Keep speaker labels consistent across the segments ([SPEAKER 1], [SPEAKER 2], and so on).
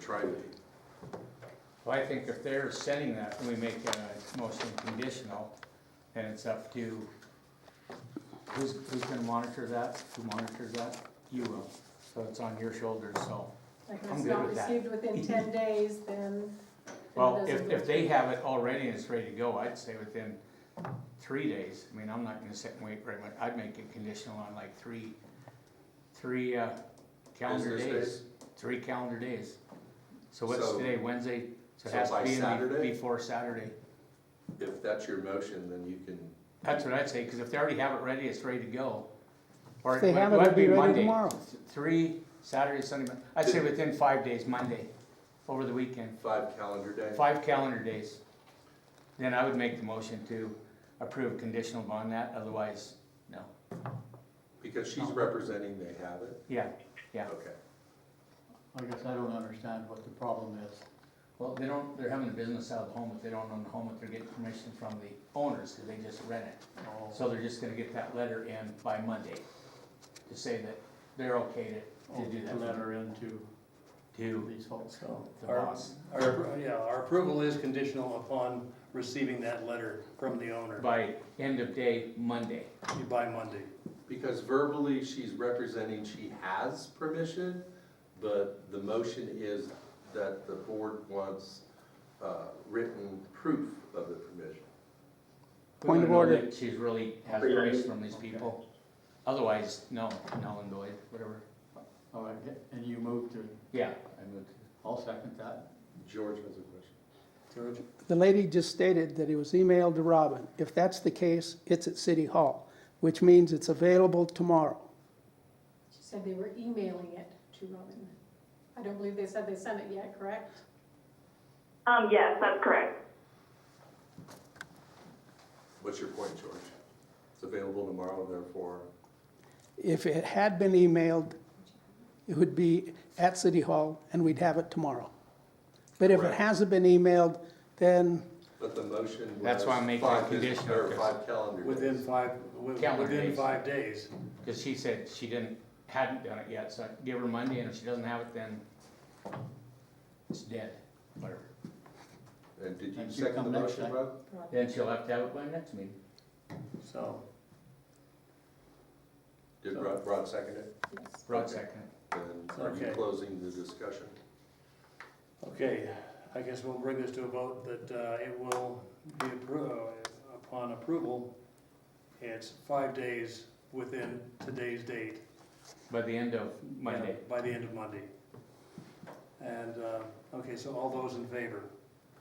[SPEAKER 1] tri-meet.
[SPEAKER 2] Well, I think if they're setting that, we make a motion conditional, and it's up to, who's, who's gonna monitor that? Who monitors that? You will, so it's on your shoulders, so.
[SPEAKER 3] Like
[SPEAKER 2] I'm
[SPEAKER 3] if it's
[SPEAKER 2] good
[SPEAKER 3] not
[SPEAKER 2] with that.
[SPEAKER 3] received within ten days, then. then it
[SPEAKER 2] Well, if,
[SPEAKER 3] doesn't-
[SPEAKER 2] if they have it already and it's ready to go, I'd say within three days. I mean, I'm not gonna sit and wait very much. I'd make it conditional on like three, three, uh, calendar
[SPEAKER 1] Business
[SPEAKER 2] days. Three calendar days. So what's
[SPEAKER 1] So-
[SPEAKER 2] today, Wednesday? So it
[SPEAKER 1] so
[SPEAKER 2] has to
[SPEAKER 1] by
[SPEAKER 2] be in the-
[SPEAKER 1] Saturday?
[SPEAKER 2] before Saturday.
[SPEAKER 1] If that's your motion, then you can,
[SPEAKER 2] That's what I'd say, cause if they already have it ready, it's ready to go. Or
[SPEAKER 4] If they have it,
[SPEAKER 2] might
[SPEAKER 4] it'll be ready
[SPEAKER 2] Monday.
[SPEAKER 4] tomorrow.
[SPEAKER 2] Th- Three, Saturday, Sunday, Mon- I'd say within five days, Monday, over the weekend.
[SPEAKER 1] five calendar days.
[SPEAKER 2] five calendar days, then I would make the motion to approve conditional on that, otherwise, no.
[SPEAKER 1] Because she's representing they have it.
[SPEAKER 2] Yeah, yeah,
[SPEAKER 1] Okay.
[SPEAKER 5] I guess I don't understand what the problem is.
[SPEAKER 2] well, they don't, they're having a business out of the home, but they don't own the home, but they're getting permission from the owners, cause they just rent it.
[SPEAKER 5] Oh,
[SPEAKER 2] So they're just gonna get that letter in by Monday, to say that they're okay to,
[SPEAKER 5] oh,
[SPEAKER 2] to do
[SPEAKER 5] to
[SPEAKER 2] that.
[SPEAKER 5] let her into
[SPEAKER 2] To
[SPEAKER 5] these folks.
[SPEAKER 6] So
[SPEAKER 2] the
[SPEAKER 6] our,
[SPEAKER 2] boss,
[SPEAKER 6] our, yeah, our approval is conditional upon receiving that letter from the owner
[SPEAKER 2] by end of day Monday,
[SPEAKER 6] by Monday.
[SPEAKER 1] Because verbally, she's representing she has permission, but the motion is that the board wants uh, written proof of the permission.
[SPEAKER 2] We
[SPEAKER 4] Point
[SPEAKER 2] wanna
[SPEAKER 4] of
[SPEAKER 2] know
[SPEAKER 4] order.
[SPEAKER 2] that She's really has grace from these people, otherwise, no, null and void, whatever,
[SPEAKER 5] All right, and you move to,
[SPEAKER 2] yeah, I moved.
[SPEAKER 5] I'll second that.
[SPEAKER 1] George has a question.
[SPEAKER 6] George?
[SPEAKER 4] The lady just stated that it was emailed to Robin. If that's the case, it's at City Hall, which means it's available tomorrow.
[SPEAKER 3] She said they were emailing it to Robin. I don't believe they said they sent it yet, correct?
[SPEAKER 7] Um, yes, that's correct.
[SPEAKER 1] What's your point, George? It's available tomorrow, therefore.
[SPEAKER 4] If it had been emailed, it would be at City Hall, and we'd have it tomorrow. But if it
[SPEAKER 1] Correct.
[SPEAKER 4] hasn't been emailed, then
[SPEAKER 1] But the motion was.
[SPEAKER 2] That's why I'm making
[SPEAKER 1] five
[SPEAKER 2] it
[SPEAKER 1] business-
[SPEAKER 2] conditional,
[SPEAKER 1] Or five calendar days.
[SPEAKER 6] Within five, wi-
[SPEAKER 2] Calendar
[SPEAKER 6] within
[SPEAKER 2] days.
[SPEAKER 6] five days.
[SPEAKER 2] Because she said she didn't, hadn't done it yet, so I give her Monday, and if she doesn't have it, then it's dead, whatever.
[SPEAKER 1] And did you
[SPEAKER 5] Thank you.
[SPEAKER 1] second the
[SPEAKER 5] Come next
[SPEAKER 1] motion,
[SPEAKER 5] time.
[SPEAKER 1] Rob?
[SPEAKER 3] Robin.
[SPEAKER 2] Then she'll have to have it by next meeting.
[SPEAKER 6] So,
[SPEAKER 1] Did Rod, Rod second it?
[SPEAKER 3] Yes.
[SPEAKER 2] Rod second.
[SPEAKER 1] And are you
[SPEAKER 6] Okay.
[SPEAKER 1] closing the discussion?
[SPEAKER 6] okay, I guess we'll bring this to a vote that, uh, it will be appro, uh, upon approval. It's five days within today's date.
[SPEAKER 2] by the end of Monday.
[SPEAKER 6] Yeah, By the end of Monday. And, uh, okay, so all those in favor?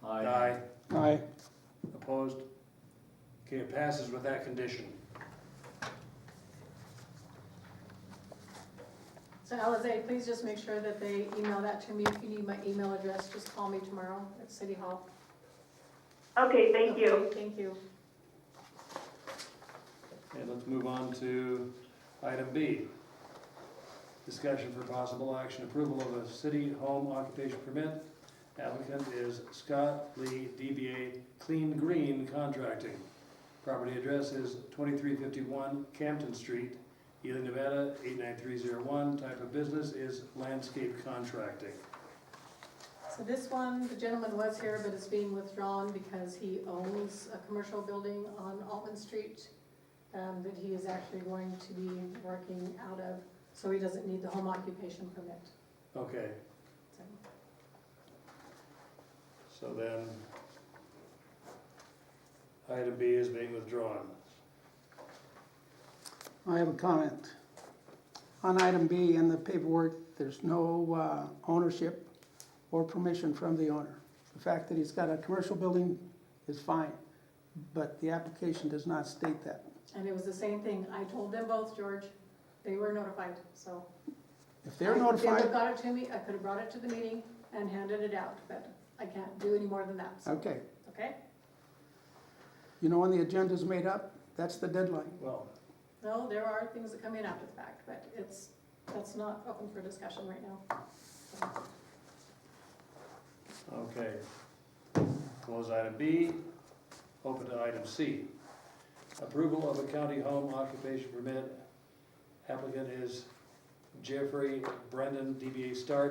[SPEAKER 6] Aye.
[SPEAKER 4] I,
[SPEAKER 6] Opposed? Okay, it passes with that condition.
[SPEAKER 3] So Alize, please just make sure that they email that to me. If you need my email address, just call me tomorrow at City Hall.
[SPEAKER 7] Okay, thank you.
[SPEAKER 3] Okay, Thank you.
[SPEAKER 6] Okay, let's move on to item B. Discussion for possible action, approval of a city home occupation permit. Applicant is Scott Lee, DBA Clean Green Contracting. Property address is twenty-three fifty-one Campton Street, Ely, Nevada, eight-nine-three-zero-one. Type of business is landscape contracting.
[SPEAKER 3] So this one, the gentleman was here, but it's being withdrawn because he owns a commercial building on Altman Street um, that he is actually going to be working out of, so he doesn't need the home occupation permit.
[SPEAKER 6] Okay,
[SPEAKER 3] So
[SPEAKER 6] So then, item B is being withdrawn.
[SPEAKER 4] I have a comment. On item B in the paperwork, there's no uh, ownership or permission from the owner. The fact that he's got a commercial building is fine, but the application does not state that.
[SPEAKER 3] And it was the same thing. I told them both, George. They were notified, so.
[SPEAKER 4] If they're
[SPEAKER 3] They would have
[SPEAKER 4] notified,
[SPEAKER 3] got it to me. I could have brought it to the meeting and handed it out, but I can't do any more than that, so,
[SPEAKER 4] okay.
[SPEAKER 3] okay?
[SPEAKER 4] You know, when the agenda's made up, that's the deadline.
[SPEAKER 6] Well,
[SPEAKER 3] No, there are things that come in after the fact, but it's, that's not open for discussion right now.
[SPEAKER 6] okay. Close item B, open to item C. Approval of a county home occupation permit. Applicant is Jeffrey Brendan, DBA Stark.